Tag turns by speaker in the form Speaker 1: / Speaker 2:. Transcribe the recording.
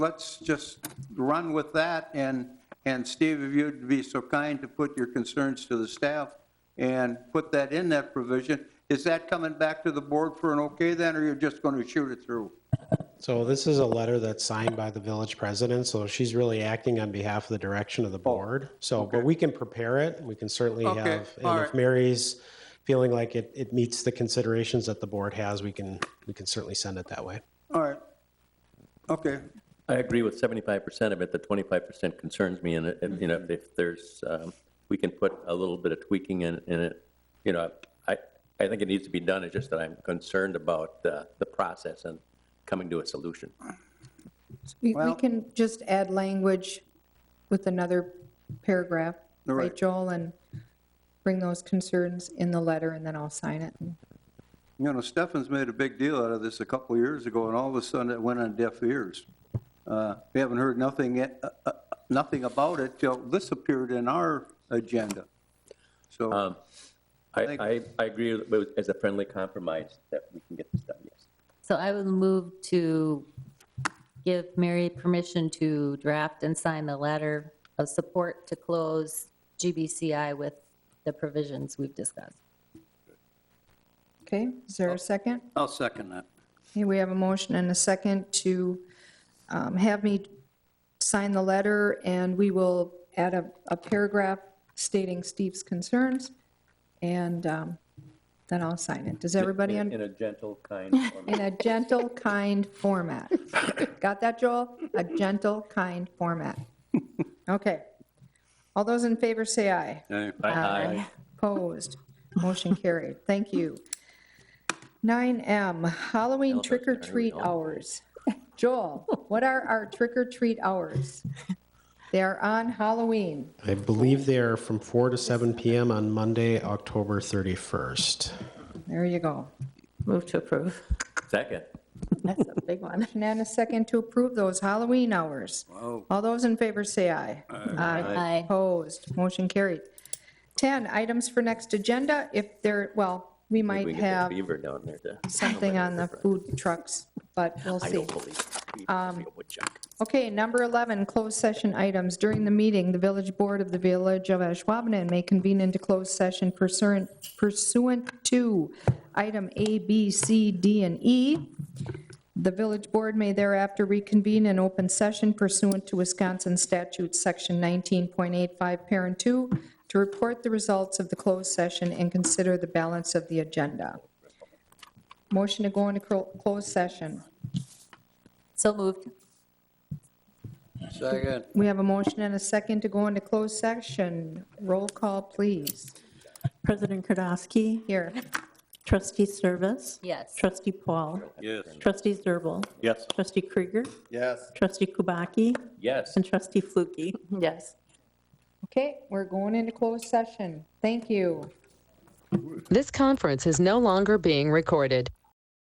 Speaker 1: let's just run with that, and, and Steve, if you'd be so kind to put your concerns to the staff and put that in that provision, is that coming back to the board for an okay then, or you're just going to shoot it through?
Speaker 2: So this is a letter that's signed by the village president, so she's really acting on behalf of the direction of the board. So, but we can prepare it, we can certainly
Speaker 1: Oh, Okay,
Speaker 2: have,
Speaker 1: all
Speaker 2: and if
Speaker 1: right.
Speaker 2: Mary's feeling like it, it meets the considerations that the board has, we can, we can certainly send it that way.
Speaker 1: All right. Okay,
Speaker 3: I agree with 75% of it, the 25% concerns me, and, it- and, you know, if there's, um, we can put a little bit of tweaking in, in it, you know, I, I think it needs to be done, it's just that I'm concerned about the, the process and coming to a solution.
Speaker 4: We
Speaker 1: Well-
Speaker 4: we can just add language with another paragraph, right,
Speaker 1: Right.
Speaker 4: Joel? And bring those concerns in the letter, and then I'll sign it. And
Speaker 1: you know, Stefan's made a big deal out of this a couple of years ago, and all of a sudden it went on deaf ears. Uh, We haven't heard nothing, yet- uh, uh, nothing about it till this appeared in our agenda. So,
Speaker 3: I,
Speaker 1: Thank-
Speaker 3: I, I agree with, as a friendly compromise, that we can get this done, yes.
Speaker 5: So I would move to give Mary permission to draft and sign the letter of support to close GBCI with the provisions we've discussed.
Speaker 4: Okay, is
Speaker 1: Oh.
Speaker 4: there a second?
Speaker 1: I'll second that.
Speaker 4: Okay, we have a motion and a second to um, have me sign the letter, and we will add a a paragraph stating Steve's concerns, and um, then I'll sign it. Does everybody,
Speaker 3: In
Speaker 4: un-
Speaker 3: in a gentle, kind form.
Speaker 4: in a gentle, kind format. Got that, Joel? A gentle, kind format. Okay. All those in favor say aye.
Speaker 3: Aye.
Speaker 4: Opposed? Motion carried. Thank you. 9M, Halloween trick or treat hours. Joel, what are our trick or treat hours? They are on Halloween.
Speaker 2: I believe they are from four to seven PM on Monday, October 31st.
Speaker 4: There you go.
Speaker 5: Move to approve.
Speaker 3: Second.
Speaker 5: That's a big one.
Speaker 4: Motion and a second to approve those Halloween hours. All those in favor say aye.
Speaker 5: Aye.
Speaker 4: Opposed, motion carried. 10, items for next agenda, if there, well,
Speaker 3: Maybe
Speaker 4: we
Speaker 3: we
Speaker 4: might
Speaker 3: can get
Speaker 4: have
Speaker 3: the Beaver down there to.
Speaker 4: something on the food trucks, but we'll
Speaker 3: I
Speaker 4: see.
Speaker 3: don't believe. it. Um. Woodchuck.
Speaker 4: Okay, number 11, closed session items. During the meeting, the village board of the Village of Ashwaubenon may convene into closed session pursuant pursuant to item A, B, C, D, and E. The village board may thereafter reconvene in open session pursuant to Wisconsin Statute Section 19.85, Parent 2, to report the results of the closed session and consider the balance of the agenda. Motion to go into clo- closed session.
Speaker 5: So moved.
Speaker 1: Second.
Speaker 4: We have a motion and a second to go into closed session. Roll call, please.
Speaker 6: President Kardowski,
Speaker 4: Here.
Speaker 6: trustee Service,
Speaker 5: Yes.
Speaker 6: trustee Paul,
Speaker 1: Yes.
Speaker 6: trustee Zerbal,
Speaker 3: Yes.
Speaker 6: trustee Krieger,
Speaker 1: Yes.
Speaker 6: trustee Kubaki,
Speaker 3: Yes.
Speaker 6: and trustee Flukie.
Speaker 5: Yes.
Speaker 4: Okay, we're going into closed session. Thank you.
Speaker 7: This conference is no longer being recorded.